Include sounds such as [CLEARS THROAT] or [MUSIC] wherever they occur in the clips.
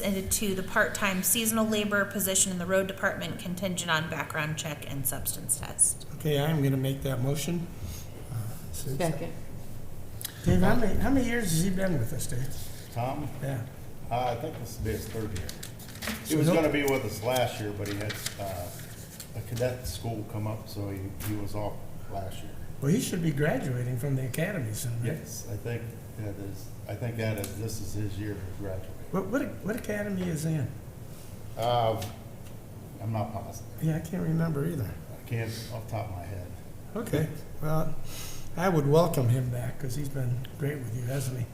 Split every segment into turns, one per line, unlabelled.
and to the part-time seasonal labor position in the road department contingent on background check and substance test.
Okay, I'm gonna make that motion. Uh, so-
Second.
Dave, how many, how many years has he been with us, Dave?
Tom,
Yeah.
uh, I think this will be his third year. He
So
was
no-
gonna be with us last year, but he had, uh, a cadet school come up, so he, he was off last year.
Well, he should be graduating from the academy soon, right?
Yes, I think that is, I think that is, this is his year to graduate.
What, what, what academy is he in?
Uh, I'm not positive.
Yeah, I can't remember either.
I can't off the top of my head.
Okay, well, I would welcome him back, because he's been great with you, hasn't he?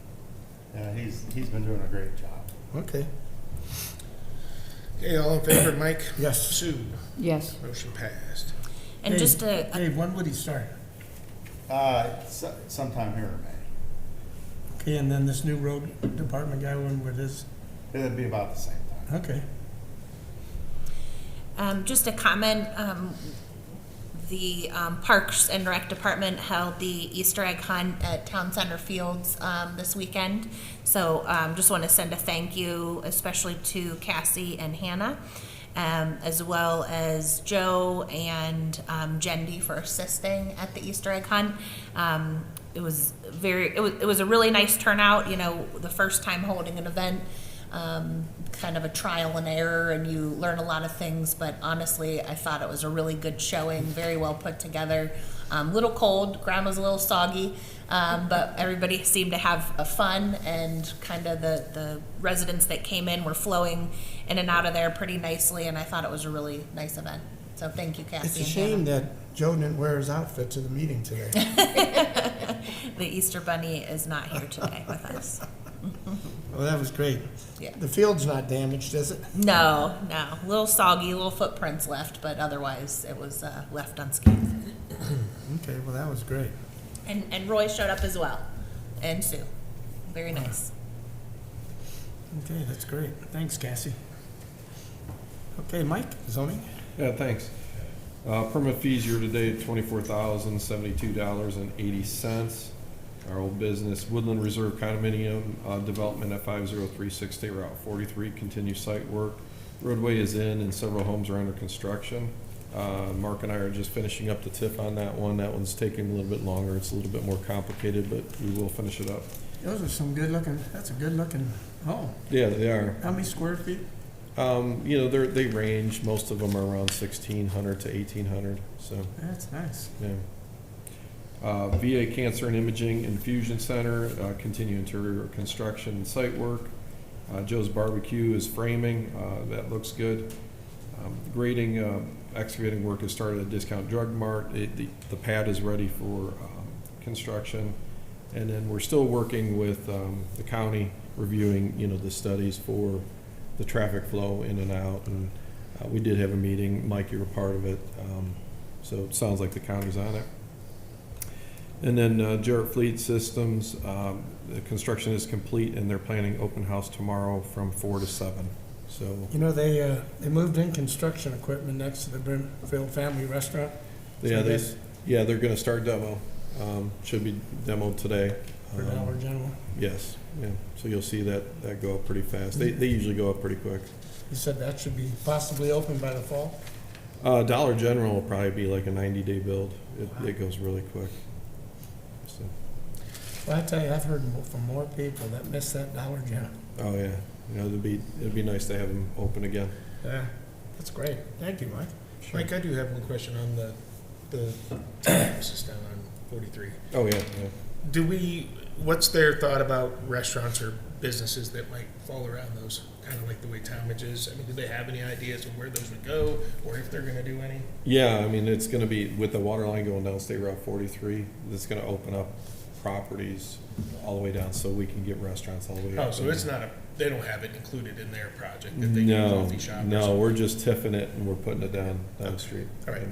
Yeah, Uh, he's, he's been doing a great job.
Okay,
Okay, all in favor, Mike?
yes.
Sue,
Yes.
motion passed.
And
Dave,
just a, a-
Dave, when would he start?
Uh, so- sometime here in May.
Okay, and then this new road department guy, when would his,
It'd be about the same time.
okay.
Um, just a comment, um, the, um, Parks and Rec Department held the Easter egg hunt at Town Center Fields, um, this weekend. So, um, just wanna send a thank you especially to Cassie and Hannah, um, as well as Joe and, um, Jendi for assisting at the Easter egg hunt. Um, it was very, it was, it was a really nice turnout, you know, the first time holding an event um, kind of a trial and error, and you learn a lot of things. But honestly, I thought it was a really good showing, very well put together. Um, little cold, ground was a little soggy, um, but everybody seemed to have a fun, and kind of the, the residents that came in were flowing in and out of there pretty nicely, and I thought it was a really nice event. So thank you, Cassie.
It's a
and
shame that Joe didn't wear his outfit to the meeting today.
Hannah. The Easter Bunny is not here today with us.
Well, that was great.
Yeah.
The field's not damaged, is it?
No, no. Little soggy, little footprints left, but otherwise it was uh, left unscathed.
Okay, well, that was great.
And, and Roy showed up as well, and Sue. Very nice.
Okay, that's great. Thanks, Cassie. Okay, Mike, zoning?
Yeah, thanks. Uh, Permit fees year-to-date, twenty-four thousand, seventy-two dollars and eighty cents. Our old business, Woodland Reserve Condominium uh, Development at five zero three six State Route forty-three, continues site work. Roadway is in and several homes are under construction. Uh, Mark and I are just finishing up the tip on that one. That one's taking a little bit longer. It's a little bit more complicated, but we will finish it up.
Those are some good looking, that's a good looking home.
Yeah, they are.
How many square feet?
Um, You know, they're, they range, most of them are around sixteen hundred to eighteen hundred, so.
That's nice.
Yeah. Uh, VA Cancer and Imaging Infusion Center, uh, continue interior construction and site work. Uh, Joe's Barbecue is framing, uh, that looks good. Um, Grading, uh, excavating work has started at Discount Drug Mart. It- The the pad is ready for um, construction. And then we're still working with um, the county, reviewing, you know, the studies for the traffic flow in and out. And uh, we did have a meeting, Mike, you were part of it. Um, so it sounds like the county's on it. And then uh, Jarrett Fleet Systems, um, the construction is complete and they're planning open house tomorrow from four to seven. So
You know, they, uh, they moved in construction equipment next to the Brimfield Family Restaurant.
yeah, they,
Yes.
yeah, they're gonna start demo. Um, Should be demoed today.
For
Um,
Dollar General.
Yes, yeah. So you'll see that, that go up pretty fast.
Mm-hmm.
They, they usually go up pretty quick.
You said that should be possibly open by the fall?
Uh, Dollar General will probably be like a ninety-day build. It, it goes really quick. So,
Well, I tell you, I've heard mo- from more people that miss that Dollar General.
oh, yeah. You know, it'd be, it'd be nice to have them open again.
Yeah. That's great. Thank you, Mike.
Sure.
Mike, I do have one question on the, the,
[CLEARS THROAT]
this is down on forty-three.
Oh, yeah, yeah.
Do we, what's their thought about restaurants or businesses that might fall around those, kind of like the way Talmadge is? I mean, do they have any ideas of where those would go, or if they're gonna do any?
Yeah, I mean, it's gonna be, with the water line going down State Route forty-three, that's gonna open up properties all the way down, so we can get restaurants all the way up.
Oh, so it's not a, they don't have it included in their project that they do
No,
coffee shop or
No,
something?
we're just tiffing it and we're putting it down, down the street.
All right,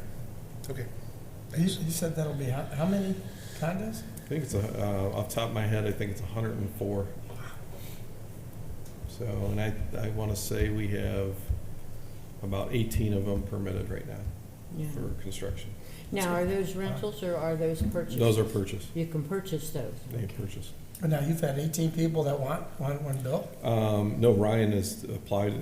okay.
You,
Thanks.
you said that'll be how, how many condos?
I think it's, a- uh, off the top of my head, I think it's hundred and four. So, and I, I wanna say we have about eighteen of them permitted right now
Yeah.
for construction.
Now, are those rentals or are those purchased?
Those are purchased,
You can purchase those.
they are purchased.
But now you've had eighteen people that want, want one built?
Um, no, Ryan has applied